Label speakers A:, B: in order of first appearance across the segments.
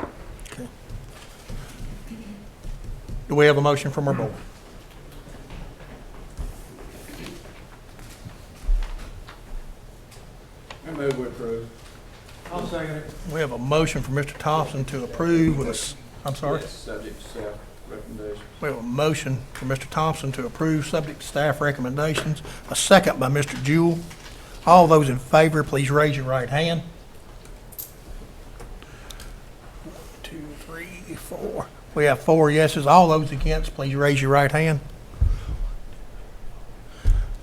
A: Okay. Do we have a motion from our board?
B: I move we approve. I'll second it.
A: We have a motion from Mr. Thompson to approve with a, s- I'm sorry?
B: Yes, subject to staff recommendation.
A: We have a motion from Mr. Thompson to approve subject to staff recommendations, a second by Mr. Jewell. All those in favor, please raise your right hand. One, two, three, four. We have four yeses. All those against, please raise your right hand.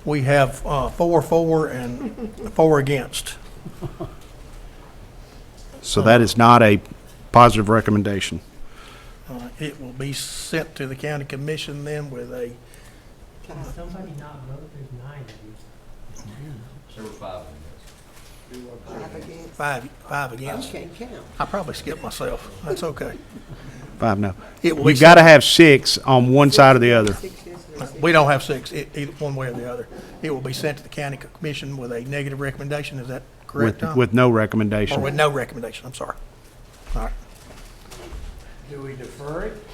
A: We have uh, four, four, and four against.
C: So that is not a positive recommendation.
A: Uh, It will be sent to the county commission then with a,
D: Can somebody not vote? There's nine of you.
E: There were five of them.
D: Five against.
A: five, five against.
D: Can't count.
A: I probably skipped myself. That's okay.
C: Five, no.
A: It will be
C: You've got to have six on one side or the other.
D: Six yes or six.
A: We don't have six, e- either one way or the other. It will be sent to the county commission with a negative recommendation, is that correct,
C: With,
A: Tom?
C: with no
A: Or with
C: recommendation.
A: no recommendation, I'm sorry. All right.
F: Do we defer it?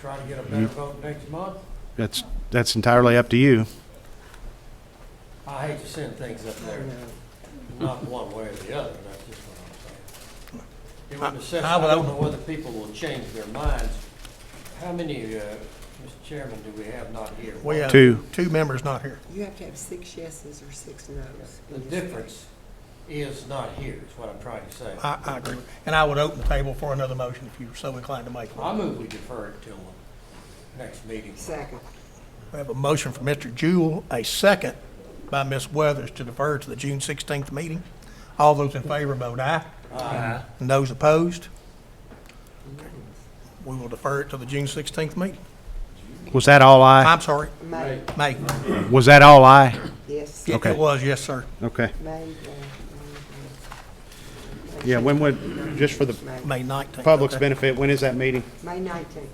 F: Try to get a better vote next month?
C: That's, that's entirely up to you.
F: I hate to send things up there, not one way or the other, that's just what I'm saying. It would assess, I don't know whether people will change their minds. How many, uh, Mr. Chairman, do we have not here?
A: We have
C: Two.
A: Two members not here.
D: You have to have six yeses or six noes.
F: The difference is not here, is what I'm trying to say.
A: I, I agree. And I would open the table for another motion if you were so inclined to make
F: I
A: one.
F: move we defer it till the next meeting.
D: Second.
A: We have a motion from Mr. Jewell, a second by Ms. Weathers to defer to the June sixteenth meeting. All those in favor vote aye.
F: Aye.
A: And those opposed? We will defer it to the June sixteenth meeting.
C: Was that all I?
A: I'm sorry,
D: May,
A: May.
C: Was that all I?
D: yes,
A: It-
C: Okay.
A: It was, yes, sir.
C: Okay.
D: May, May,
C: Yeah, when would, just for the
D: May, May,
A: May nineteenth.
C: public's benefit, when is that meeting?
D: May nineteenth.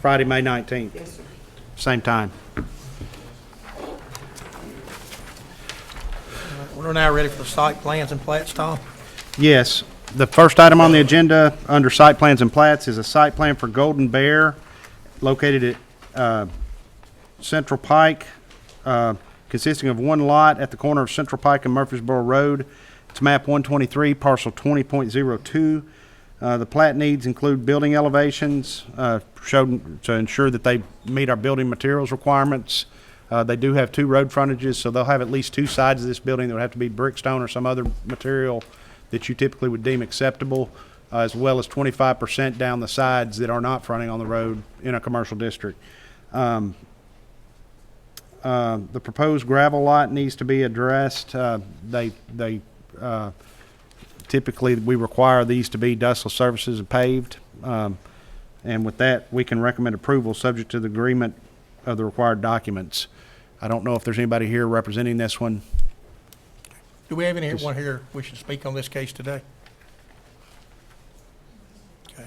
C: Friday, May 19th,
D: Yes, sir.
C: same time.
A: We're now ready for the site plans and plats, Tom.
C: Yes. The first item on the agenda, under site plans and plats, is a site plan for Golden Bear located at uh, Central Pike, uh, consisting of one lot at the corner of Central Pike and Murfreesboro Road. It's map 123, parcel 20.02. Uh, The plat needs include building elevations, uh, showed to ensure that they meet our building materials requirements. Uh, They do have two road frontages, so they'll have at least two sides of this building that would have to be brick, stone, or some other material that you typically would deem acceptable, uh, as well as 25% down the sides that are not fronting on the road in a commercial district. Uh, the proposed gravel lot needs to be addressed. Uh, They, they, uh, typically, we require these to be dustless surfaces and paved. Um, And with that, we can recommend approval, subject to the agreement of the required documents. I don't know if there's anybody here representing this one.
A: Do we have anyone here wishing to speak on this case today? Okay.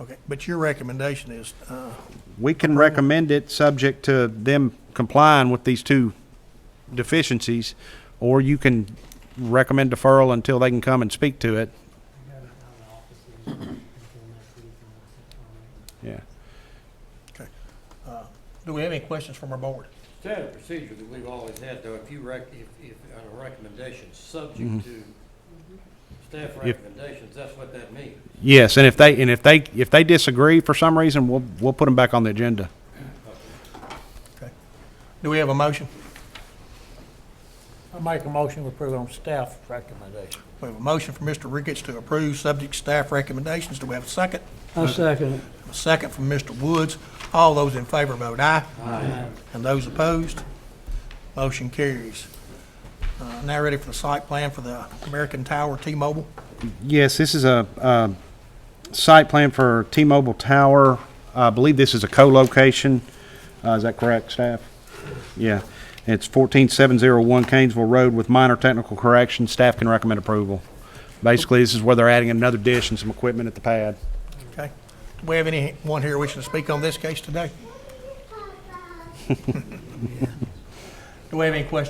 A: Okay, but your recommendation is, uh,
C: We can recommend it, subject to them complying with these two deficiencies, or you can recommend deferral until they can come and speak to it.
D: I got it out of the office until next week, and I'll sit down and-
C: Yeah.
A: uh, do we have any questions from our board?
F: Standard procedure that we've always had, though, if you rec, if, if, on a recommendation, subject to staff recommendations, that's what that means.
C: Yes, and if they, and if they, if they disagree for some reason, we'll, we'll put them back on the agenda.
A: Okay. Do we have a motion?
G: I make a motion to approve on staff recommendation.
A: We have a motion from Mr. Ricketts to approve subject to staff recommendations. Do we have a second?
G: I second it.
A: A second from Mr. Woods. All those in favor vote aye. Aye. And those opposed? Motion carries. Uh, Now ready for the site plan for the American Tower T-Mobile?
C: Yes, this is a, uh, site plan for T-Mobile Tower. I believe this is a co-location. Uh, is that correct, staff? Yeah. It's fourteen seven zero one Canesville Road with minor technical corrections. Staff can recommend approval. Basically, this is where they're adding another dish and some equipment at the pad.
A: Okay. Do we have anyone here wishing to speak on this case today? Do we have any questions